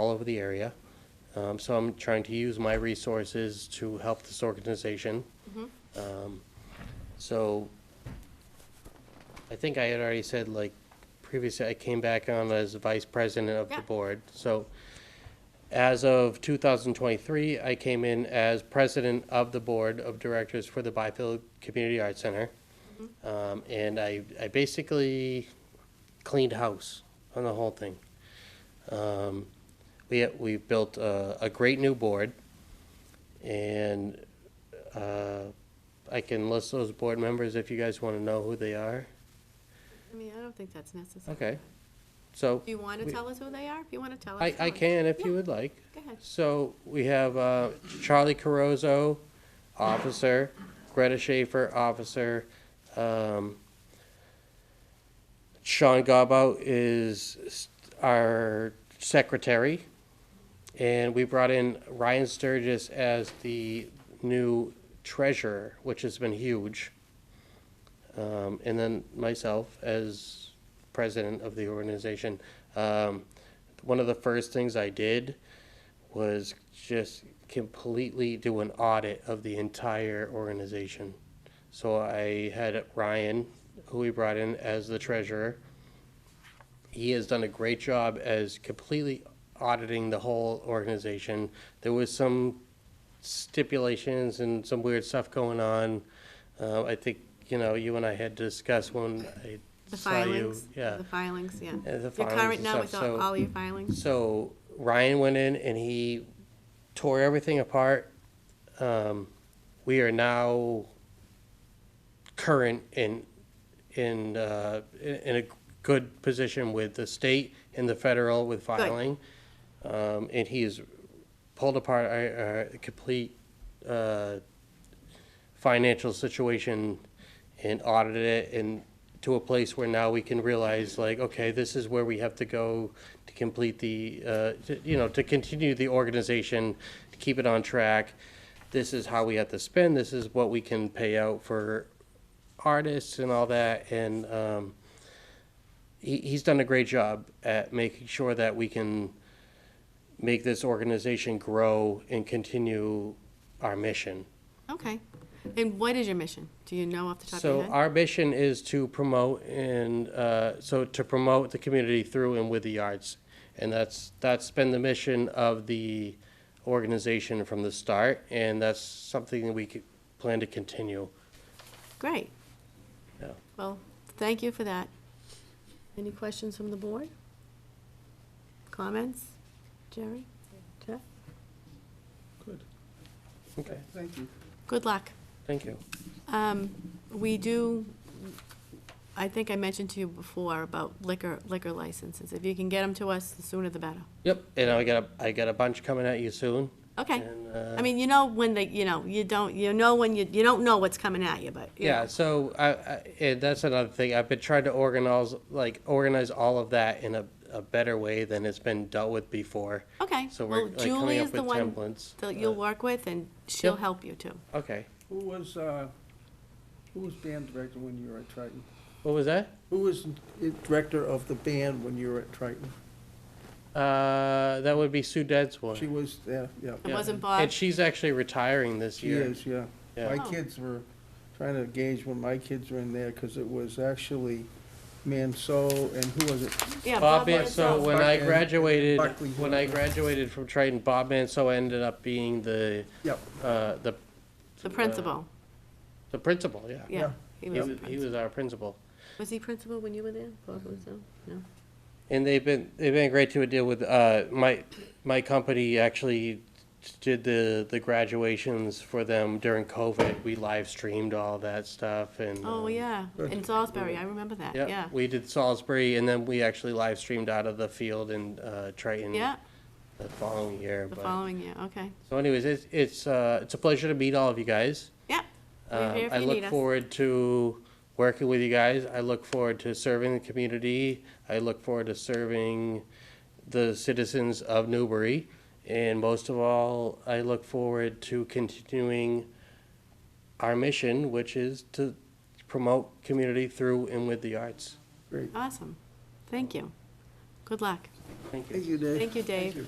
over the area. Um, so I'm trying to use my resources to help this organization. Um, so I think I had already said, like, previously, I came back on as vice president of Yeah. the board. So as of 2023, I came in as president of the board of directors for the Byfield Community Arts Center. Um, and I, I basically cleaned house on the whole thing. Um, we, we built a, a great new board, and, uh, I can list those board members if you guys wanna know who they are. I mean, I don't think that's necessary. Okay, so, Do you want to We- tell us who they are? If you want to tell us. I, tell I us. can if you Yeah, would like. Go ahead. So we have uh, Charlie Carozzo, officer, Greta Schaefer, officer. um, Sean Gobbo is s- our secretary. And we brought in Ryan Sturgis as the new treasurer, which has been huge. Um, And then myself as president of the organization. Um, One of the first things I did was just completely do an audit of the entire organization. So I had Ryan, who we brought in as the treasurer. He has done a great job as completely auditing the whole organization. There was some stipulations and some weird stuff going on. Uh, I think, you know, you and I had discussed when I The saw you. filings. Yeah. The filings, yeah. the You're filings current and now stuff, with all so- all your filings? So Ryan went in and he tore everything apart. Um, we are now current in in uh, in in a good position with the state and the federal with filing, um, and he has pulled apart our, our complete uh, financial situation and audited it and to a place where now we can realize like, okay, this is where we have to go to complete the, uh, to- you know, to continue the organization, to keep it on track. This is how we have to spend, this is what we can pay out for artists and all that. And um, he, he's done a great job at making sure that we can make this organization grow and continue our mission. Okay. And what is your mission? Do you know off the top of your So head? our mission is to promote and, uh, so to promote the community through and with the arts. And that's, that's been the mission of the organization from the start, and that's something that we could plan to continue. Great. Yeah. Well, thank you for that. Any questions from the board? Comments? Jerry? Jeff? Good, Okay, thank you. Good luck. thank you. Um, We do, I think I mentioned to you before about liquor, liquor licenses. If you can get them to us, the sooner the better. Yep, and I got, a I got a bunch coming at you soon. Okay. and, uh, I mean, you know when they, you know, you don't, you know when you, you don't know what's coming at you, but. you Yeah, know. so I, I and that's another thing. I've been trying to organize like organize all of that in a, a better way than it's been dealt with before. Okay. So we're Well, like coming Julie is up the with one templates. that you'll uh, work with and she'll Yep. help you too. Okay. Who was, uh, who was band director when you were at Triton? What was that? Who was it- director of the band when you were at Triton? Uh, that would be Sue Dead's She was, yeah, yeah. It wasn't Bob? And she's actually retiring this She year. is, yeah. Yeah. My Oh. kids were trying to gauge when my kids were in there, because it was actually Manso, and who was it? Yeah, Bob uh, Bob Manso, Manzo. when I Buck- graduated, Buckley. when I graduated from Triton, Bob Manso ended up being the Yep, uh, the The principal, the principal. Yeah. yeah. yeah. He uh, He, was was, he principal. was our principal. Was he principal when you were there? Bob Manzo? No? And they've been, they've been great to deal with, uh, my, my company actually did the, the graduations for them during COVID. We live streamed all that stuff and. Oh, um, yeah. Good. In Salisbury, I remember that, yeah. We did Salisbury and then we actually live streamed out of the field in, uh, Triton. Yeah, The following year. the but- following year, okay. So anyways, it's, it's, uh, it's a pleasure to meet all of you guys. Yeah, we're Um, here if I you need look us. forward to working with you guys. I look forward to serving the community. I look forward to serving the citizens of Newbury. And most of all, I look forward to continuing our mission, which is to promote community through and with the arts. Great. Awesome. Thank you. Good luck. Thank you. Thank you, Dave. Thank you, Dave. you.